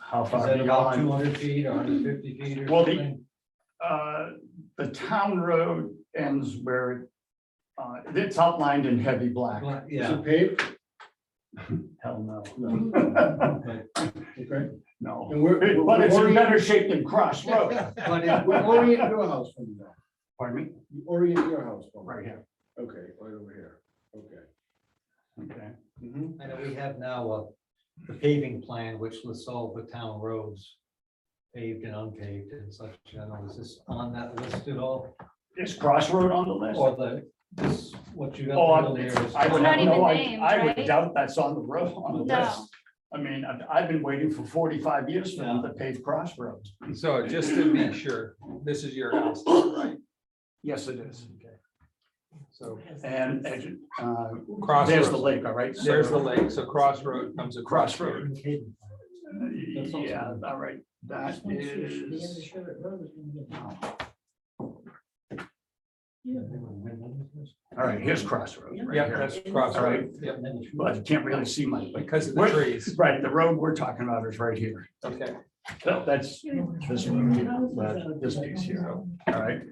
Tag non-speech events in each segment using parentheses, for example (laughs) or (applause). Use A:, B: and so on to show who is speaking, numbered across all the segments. A: How
B: Is
A: far
B: that about two
A: beyond?
B: hundred feet, hundred fifty feet or
C: Well, the-
B: something?
C: Uh, The town road ends where it, uh, it's outlined in heavy black.
B: Well,
A: Is
B: Yeah.
A: it paved?
C: Hell no.
A: No. Okay.
C: No.
A: And we're- we're-
C: But it's
A: we're-
C: in better shape than Cross Road.
A: But
C: (laughs)
A: it- we orient your house from that.
C: Pardon me?
A: You orient your house from
C: Right
A: that.
C: here.
A: Okay, right over here. Okay.
C: Okay. Mm-hmm.
A: Mhm.
B: I know we have now uh, the paving plan which lists all the town roads paved and unpaved and such. I don't know, is this on that list at all?
C: Is Cross Road on the list?
B: Or the, this, what you
C: Oh,
B: got
C: I'm-
B: earlier is.
C: I
D: It's
C: would
D: not
C: have
D: even
C: no, I,
D: named,
C: I would
D: right?
C: doubt that's on the road, on the
D: No.
C: list. I mean, I've, I've been waiting for forty-five years for them to pave Cross Road.
E: So just to be sure, this is your house, right?
C: Yes, it is.
E: So
C: And, and, uh, there's the
E: crossroads,
C: lake, all right? So-
E: there's the lake, so crossroad comes across.
C: Cross Road.
B: That's also-
C: Yeah, all right, that is. All right, here's Crossroad. right
E: Yeah,
C: here.
E: that's crossroad, yeah,
C: But you can't really see much, but,
E: because of the
C: Where-
E: trees,
C: right, the road we're talking about is right here.
E: okay.
B: Oh.
C: So That's this one, that- this piece here, all right?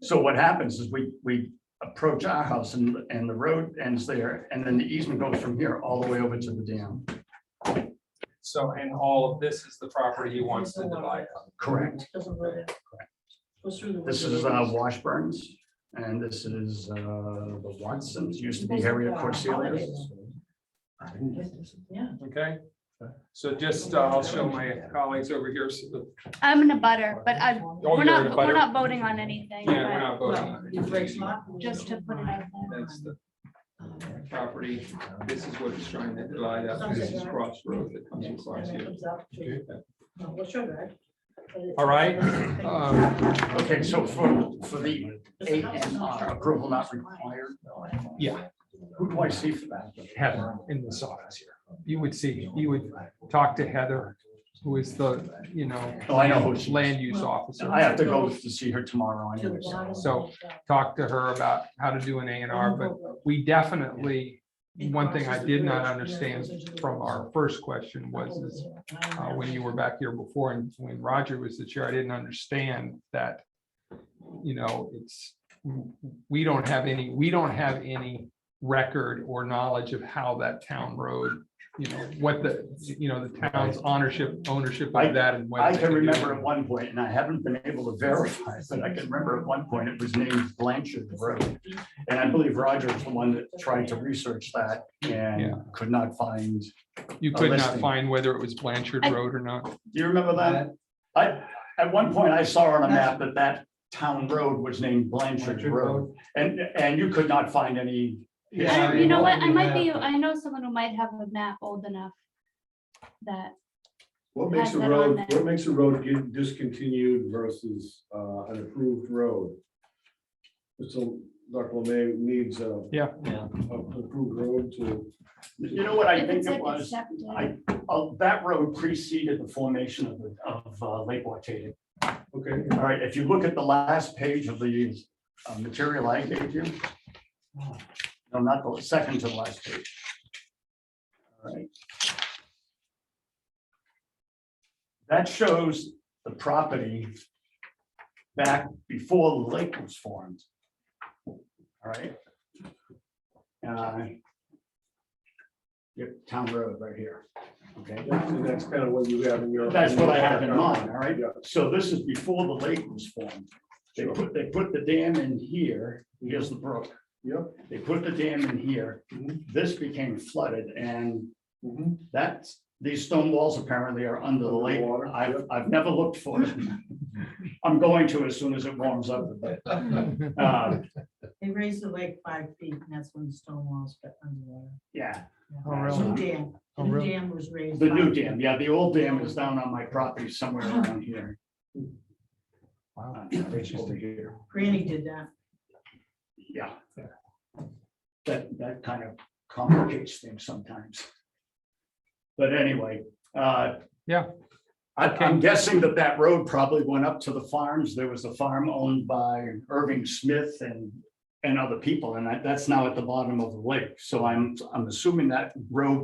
C: So what happens is we, we approach our house and, and the road ends there, and then the easement goes from here all the way over to the dam.
E: So, and all of this is the property he wants to divide. up.
C: Correct. This is uh, Washburns, and this is uh, the Watsons, used to be Harriet Corselia.
F: Yeah.
E: Okay, so just, uh, I'll show my colleagues over here. so uh, the-
D: I'm in a butter, but I,
E: Oh,
D: we're
E: you're in a
D: not,
E: butter.
D: we're not voting on anything.
E: Yeah, we're
D: but
E: not voting on it.
D: Just to put it out there.
E: That's the
F: Um,
E: property, this is what he's trying to divide up, this is crossroad that comes across here. All right, um,
C: Okay, so for, for the eight and R, approval not required.
E: Yeah.
C: Who do I see for that?
E: Heather in this office here, you would see, you would talk to Heather, who is the, you know,
C: Oh, I know who she is.
E: land use officer.
C: I have to go to see her tomorrow anyways.
E: So talk to her about how to do an A and R,
F: Mm-hmm.
E: but we definitely, one thing I did not understand from our first question was is, uh, when you were back here before and when Roger was the chair, I didn't understand that, you know, it's, we don't have any, we don't have any record or knowledge of how that town road, you know, what the, you know, the town's ownership, ownership
C: I-
E: of that and whether
C: I
E: they
C: can
E: do
C: remember
E: it.
C: at one point, and I haven't been able to verify, but I can remember at one point it was named Blanchard Road. And I believe Roger was the one that tried to research that
E: Yeah.
C: and could not find,
E: You
C: a
E: could not
C: listing.
E: find whether it was Blanchard
D: I-
E: Road or not.
C: do you remember that? I, at one point I saw on a map that that town road was named Blanchard
B: Orchard
C: Road.
B: Road.
C: And, and you could not find any.
D: I
B: Yeah,
D: don't- You know
B: we
D: what, I
B: don't
D: might be,
B: have-
D: I know someone who might have a map old enough that,
A: What makes a
D: Has that on
A: road,
D: there.
A: what makes a road get discontinued versus uh, an approved road? So Dr. Lemay needs a.
E: Yeah.
B: Yeah.
A: a- Approved road to.
C: You know what I
D: if
C: think
D: it's
C: it
D: like a
C: was?
D: septic.
C: I- Oh, that road preceded the formation of, the- of uh, Lake Waitaga.
A: Okay,
C: All right, if you look at the last page of the uh, material I gave you. No, not the second to the last page. All right. That shows the property back before the lake was formed. All right. Uh, Yep, town road right here, okay?
A: that's, that's kind of what you have in your.
C: That's what I have in mind, all right?
A: Yeah.
C: So this is before the lake was formed. They (laughs) put, they put the dam in here, here's the brook.
A: Yep.
C: They put the dam in here,
A: Mhm.
C: this became flooded and (laughs)
A: Mhm.
C: that's, these stone walls apparently are under the lake.
A: Underwater,
C: I've,
A: yep.
C: I've never looked for them. I'm going to as soon as it warms up. but, uh,
F: They raised the lake five feet and that's when the stone walls got underwater.
C: Yeah,
E: Oh,
C: really?
F: New dam, the
E: Oh,
F: new
E: really?
F: dam was raised.
C: the new
F: five
C: dam,
F: feet.
C: yeah, the old dam is down on my property somewhere around here.
E: Wow.
C: Uh, right over here.
F: Granny did that.
C: Yeah. That, that kind of complicates things sometimes. But anyway, uh.
E: Yeah.
C: I, I'm guessing that that road probably went up to the farms. There was a farm owned by Irving Smith and, and other people, and that, that's now at the bottom of the lake. So I'm, I'm assuming that road